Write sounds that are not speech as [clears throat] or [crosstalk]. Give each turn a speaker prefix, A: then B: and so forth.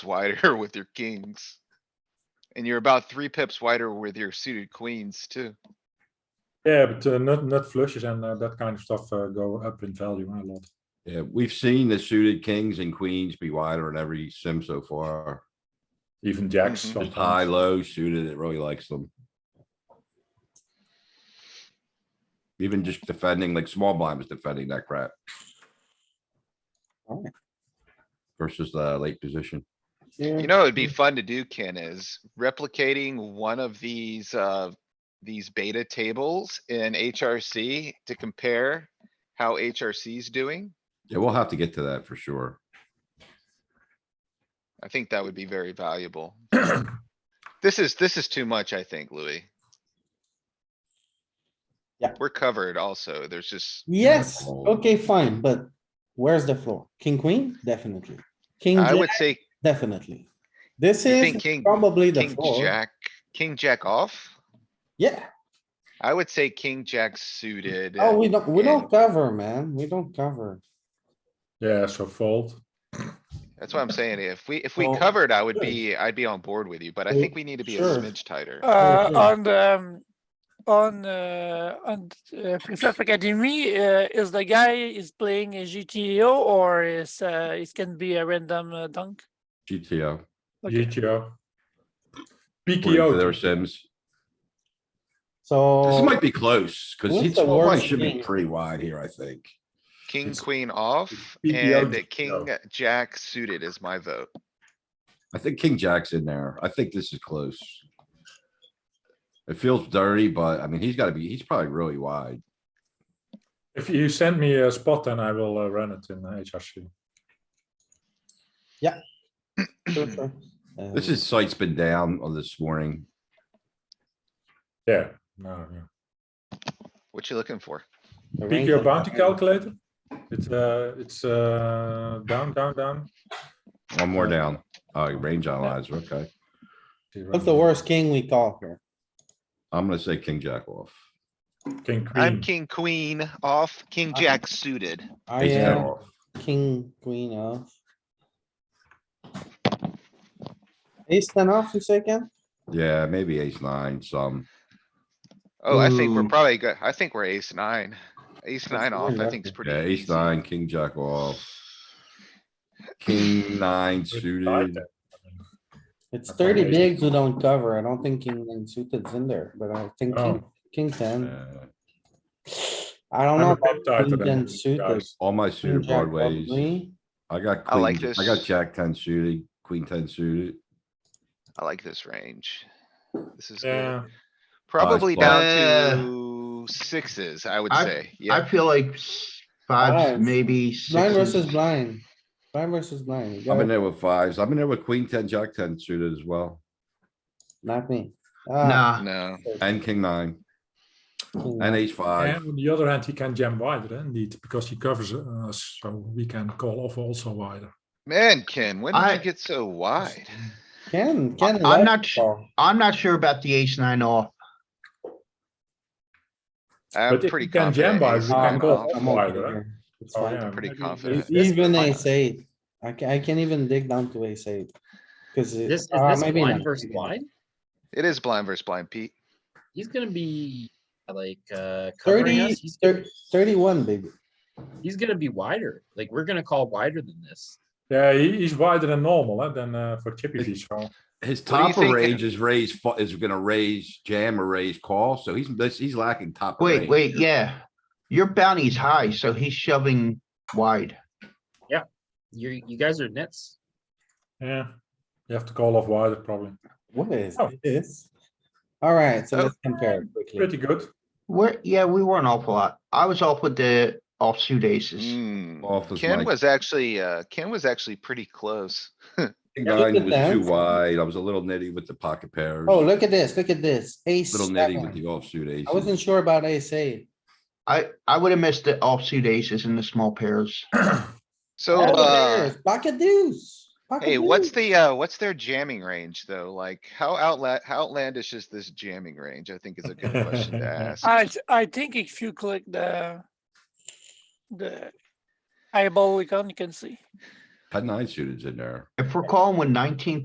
A: wider [laughs] with your kings. And you're about three pips wider with your suited queens too.
B: Yeah, but uh, nut nut flushes and uh, that kind of stuff uh, go up in value a lot.
C: Yeah, we've seen the suited kings and queens be wider in every sim so far.
B: Even jacks
A: Mhm.
C: Just
B: sometimes.
C: high, low suited, it really likes them. Even just defending, like small blind was defending that crap.
D: Alright.
C: Versus the late position.
A: You know, it'd be fun to do, Ken, is replicating one of these, uh, these beta tables in HRC to compare how HRC's doing.
C: Yeah, we'll have to get to that for sure.
A: I think that would be very
D: [clears throat]
A: valuable. This is, this is too much, I think, Louis.
D: Yeah.
A: We're covered also. There's just,
D: Yes,
C: Oh.
D: okay, fine, but where's the floor? King, queen? Definitely. King,
A: I
D: jack?
A: would say
D: Definitely. This
A: You think
D: is
A: king-
D: probably the
A: king,
D: floor.
A: jack, king, jack off.
D: Yeah,
A: I would say king, jack suited.
D: oh, we don't, we
A: and-
D: don't cover, man. We don't cover.
B: Yeah, so fold.
A: That's what I'm saying. If we, if we
D: Well,
A: covered, I would
D: good.
A: be, I'd be on board with you, but I
D: Well,
A: think we need to be a
D: sure.
A: smidge tighter.
E: Uh,
D: Okay.
E: on the, um, on, uh, on, uh, Free Fluff Academy, uh, is the guy is playing a GTO or is, uh, it can be a random uh, dunk?
C: GTO.
E: Okay.
B: GTO.
C: according to
B: PKO.
C: Their sims. This
D: So, uh,
C: might be close, cause
D: Oh. What's
C: he's,
D: the
C: well,
D: worst
C: should be
D: king?
C: pretty wide here, I think.
A: King,
B: It's-
A: queen off
B: it's BBL
A: and
B: just
A: king, jack suited is my vote.
C: I think king jack's in there. I think this is close. It feels dirty, but I mean, he's gotta be, he's probably really wide.
B: If you send me a spot, then I will uh, run it in uh, HRC.
D: sure, sure. Uh,
C: This is sight's been down on this morning.
B: Yeah. No, yeah.
A: What you looking for?
D: the range
B: PKO
D: of-
B: bounty calculator. It's uh, it's uh, down, down, down.
C: One more down. Oh, range analyzer, okay.
D: What's the worst king we call here?
C: I'm gonna say king jack off.
B: King
A: I'm
B: queen.
A: king, queen off, king,
D: I'm-
A: jack suited.
D: I
C: Ace ten
D: am
C: off.
D: king, queen off. Ace ten off, you say, Ken?
C: Yeah, maybe ace nine, some.
A: Oh, I think we're
D: Ooh.
A: probably good. I think we're ace nine. Ace
D: That's
A: nine off,
D: very
A: I think is pretty
C: Yeah, ace
A: easy.
C: nine, king jack off. King nine suited.
D: It's
B: Okay.
D: thirty bigs we don't cover. I don't think king nine suited's in there, but I think king,
B: Oh.
D: king ten.
C: Uh,
D: I don't
B: I'm
D: know
B: a bit
D: about
B: tighter
D: king
B: than
D: ten
B: you
D: suited.
B: guys.
C: All my
D: King
C: suited
D: jack
C: broadways.
D: probably.
C: I got
A: I like
C: queen, I got
A: this.
C: jack ten suited, queen ten suited.
A: I like this range. This is good.
B: Yeah,
A: Probably
C: spot.
A: down
F: Uh,
A: to sixes, I would
F: I-
A: say.
F: I
A: Yeah,
F: feel like s- five,
D: Five.
F: maybe
D: Blind versus
F: sixes.
D: blind. Blind versus blind. You
C: I'm in
D: gotta-
C: there with fives. I'm in there with queen ten, jack ten suited as well,
D: Not me. Ah,
F: Nah,
A: no.
C: and king nine,
D: king.
C: and ace five.
B: and on the other hand, he can jam wider, eh, indeed, because he covers uh, us, so we can call off also wider.
A: Man, Ken, when did
F: I-
A: you get so wide?
D: Ken, Ken.
F: I'm
D: like
F: not
D: the
F: sure.
D: ball.
F: I'm not sure about the ace nine off.
A: I'm
B: But if
A: pretty
B: you can
A: confident.
B: jam by,
A: ace
B: we can
A: nine
B: go
A: off.
D: I'm okay
B: wider, eh?
D: here. It's
B: Oh,
D: fine. E
B: yeah,
A: Pretty
B: maybe
A: confident.
B: ace-
D: Even ace eight. I can, I can't even dig down to ace eight. Cause it-
G: This is
D: uh,
G: this
D: maybe
G: blind
D: not.
G: versus
D: Maybe not.
G: blind.
A: It is blind versus blind, Pete.
G: He's gonna be like uh covering
D: Thirty,
G: us. He's
D: thir- thirty-one, baby.
G: he's gonna be wider. Like we're gonna call wider than this.
B: Yeah, he, he's wider than normal, eh, than uh, for Chippy V, so.
C: His
A: What do you
C: top of
A: think?
C: range is raised, fu- is gonna raise jam or raise call, so he's, this- he's lacking top. of
F: Wait,
C: range.
F: wait, yeah. Your bounty's high, so he's shoving wide.
G: You you guys are nits.
B: Yeah, you have to call off wider probably.
D: What is
B: Oh.
D: this? Alright, so
A: Oh.
D: let's compare quickly.
B: Pretty good.
F: We're, yeah, we weren't awful lot. I was off with the offsuit aces.
A: Mm.
C: Off was my
A: Ken was actually, uh, Ken was actually pretty close.
C: king
D: Yeah, look
C: nine
D: at
C: was
D: that.
C: too wide. I was a little nitty with the pocket pairs.
D: Oh, look at this, look at this, ace
C: Little nitty with
D: seven.
C: the offsuit
D: I wasn't
C: aces.
D: sure about ace eight.
F: I, I would have missed the offsuit aces and the small pairs.
A: So,
D: Pocket
A: uh,
D: pairs, Pocket deuce. pocket
A: hey, what's
D: deuce.
A: the, uh, what's their jamming range though? Like, how outla how outlandish is this jamming range? I think is a good question
B: [laughs]
A: to ask.
E: I, th- I think if you click the, the eyeball icon, you can see.
C: Ten nine suited's in there.
F: If we're calling with nineteen